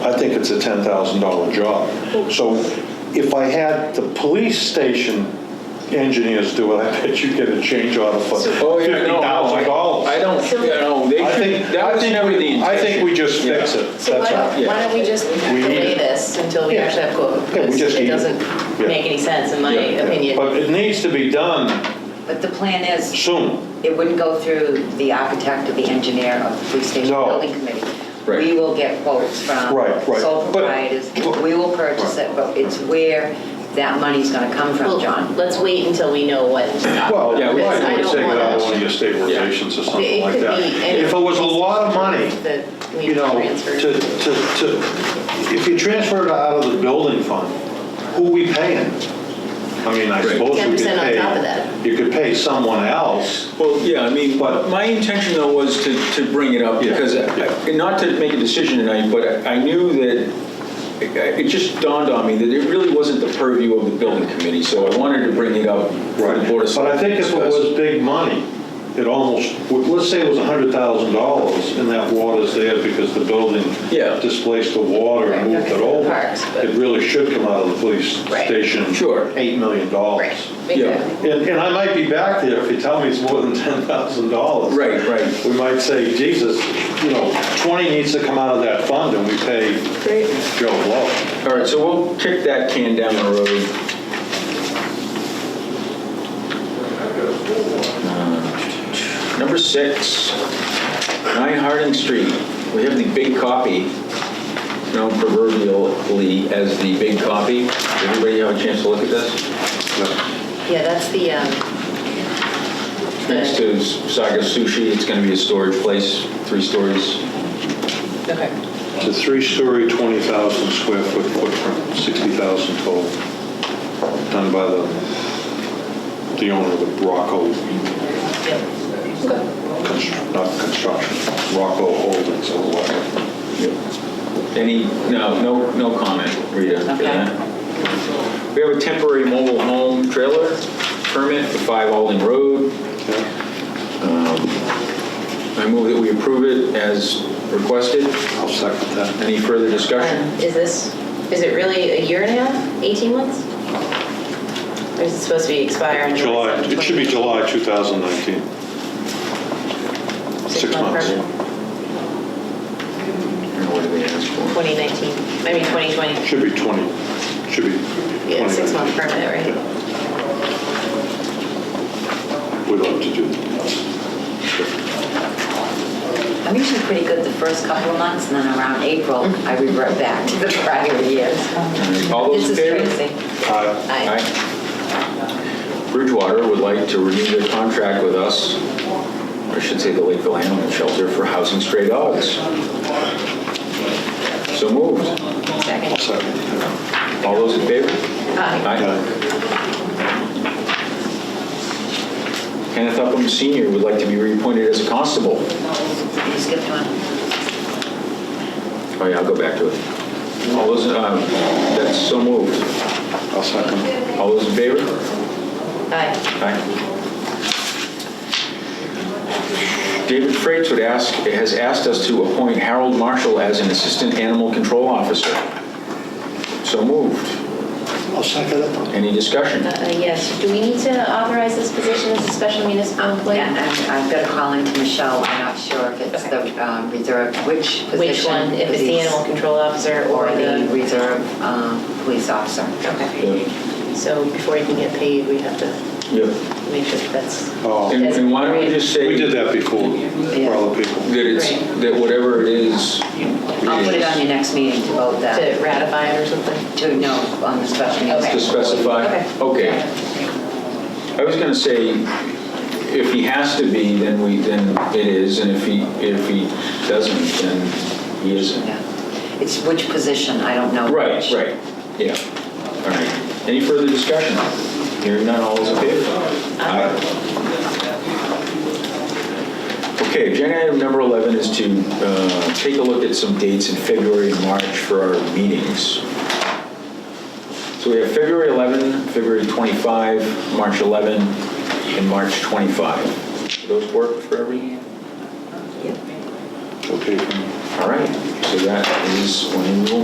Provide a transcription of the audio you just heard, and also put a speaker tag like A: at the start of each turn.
A: I think it's a $10,000 job. So if I had the police station engineers do it, I bet you'd get a change order for
B: Oh, yeah, no, I I
A: $50,000.
B: don't, you know, they
A: I
B: should,
A: think,
B: that
A: I
B: was never the
A: think,
B: intention.
A: I think we just
B: Yeah.
A: fix it,
C: So why
A: that's all.
C: don't, why don't we just
A: We need
C: delay
A: it.
C: this until we
A: Yeah.
C: actually have quote?
A: Yeah, we
C: Because
A: just
C: it
A: need it.
C: doesn't
A: Yeah.
C: make any sense in my
B: Yeah.
C: opinion.
A: But it needs to be done
D: But the plan is,
A: soon.
D: it wouldn't go through the architect or the engineer or the police station
A: No.
D: building committee.
B: Right.
D: We will get quotes from
A: Right, right.
D: sole
A: But-
D: proprietors. We will purchase it, but it's where that money's gonna come
C: Well,
D: from, John.
C: Let's wait until we know what.
A: Well,
B: Yeah, we
A: why
B: might
A: don't we
C: I
A: take it
C: don't
A: out of
C: wanna-
A: one of your stabilizations or something
C: It
A: like
C: could
A: that?
C: be any-
A: If it was a lot of money,
C: That we
A: you know,
C: transfer.
A: to, to, to, if you transfer it out of the building fund, who we paying? I mean, I
B: Right.
A: suppose we could
C: 10% on
A: pay,
C: top of that.
A: you could pay someone else.
B: Well, yeah, I mean,
A: But-
B: my intention though was to, to bring it up
A: Yeah,
B: because, I-
A: yeah.
B: not to make a decision tonight, but I knew that, it just dawned on me that it really wasn't the purview of the building committee, so I wanted to bring it up for the board of.
A: But I think if it
B: Selectmen to
A: was
B: discuss.
A: big money, it almost, let's say it was hundred thousand dollars and that water's there because the building
B: Yeah.
A: displaced the water and
C: Right,
A: moved
C: okay,
A: it
C: the
A: over.
C: parks, but-
A: It really should come out of the police
C: Right.
A: station.
B: Sure.
A: Eight million
C: Right,
A: dollars.
C: exactly.
A: And, and I might be back there if you tell me it's more than ten thousand dollars.
B: Right, right.
A: We might say, Jesus, you know, twenty needs to come out of that fund and we pay Joe Blow.
B: All right, so we'll kick that can down the road. Uh, Number six, 9 Harding Street. We have the big copy, known proverbially as the big copy. Everybody have a chance to look at this?
C: Yeah, that's the, um,
B: Next to Saga Sushi, it's going to be a storage place, three stories.
C: okay.
A: It's a three-story, twenty thousand square foot footprint, sixty thousand total, done by the, the owner of the Rocco,
C: Yep.
A: Constr- not construction, Rocco Holdings or whatever.
B: Any, no, no, no comment, Rita, for
C: Okay.
B: that. We have a temporary mobile home trailer permit for 5 Alden Road.
A: Yeah,
B: I move that we approve it as requested.
A: I'll second that.
B: Any further discussion?
C: Um, Is this, is it really a year and a half, 18 months? Or is it supposed to be expire in
A: July,
C: July?
A: it should be July two thousand nineteen. Six months.
B: What do they ask for?
C: 2019, I mean 2020.
A: Should be twenty, should be twenty.
C: Yeah, six-month permit, right?
A: We'd love to do
D: I'm usually pretty good the first couple of months, and then around April, I revert back to the prior years.
B: All those in
D: This
B: favor?
D: is crazy.
A: that.
C: Aye.
B: Aye. Bridgewater would like to renew their contract with us, I should say the Lakeville Animal Shelter for housing stray dogs. So moved.
A: I'll
C: Second.
A: second that.
B: All those in favor?
C: Aye.
A: Aye.
B: Kenneth Upham Senior would like to be reappointed as a constable.
D: You skipped one.
B: Oh yeah, I'll go back to it. All those, um, that's so moved.
A: I'll second.
B: All those in favor?
C: Aye.
B: Aye. David Freitz would ask, has asked us to appoint Harold Marshall as an Assistant Animal Control Officer. So moved.
A: I'll second it.
B: Any discussion?
C: Uh, uh, Yes, do we need to authorize this position as a special municipal employee?
D: Yeah, I've I've got to call into Michelle, I'm not sure if it's the um, reserve, which position.
C: Which one, if it's the animal control officer
D: Or the
C: the...
D: reserve um, police officer.
C: Okay,
B: Yeah.
C: so before you can get paid, we have to
B: Yeah.
C: make sure that that's...
A: Oh.
B: And and why don't we just say
A: We did
B: that
A: that before for other people.
B: it's,
C: Right.
B: that whatever it is.
D: I'll put it on your next meeting to vote
C: To
D: that,
C: ratify it or something?
D: to know on the special meeting.
B: To specify, okay. I was gonna say, if he has to be, then we, then it is, and if he, if he doesn't, then he isn't.
D: Yeah. It's which position, I don't know.
B: Right,
D: which.
B: right, yeah. All right. Any further discussion? Hearing none, all is in favor? Aye. Okay, agenda item number 11 is to uh, take a look at some dates in February and March for our meetings. So we have February 11, February 25, March 11, and March 25. Do Those work for every?
A: Okay.
B: All right, so that is when we will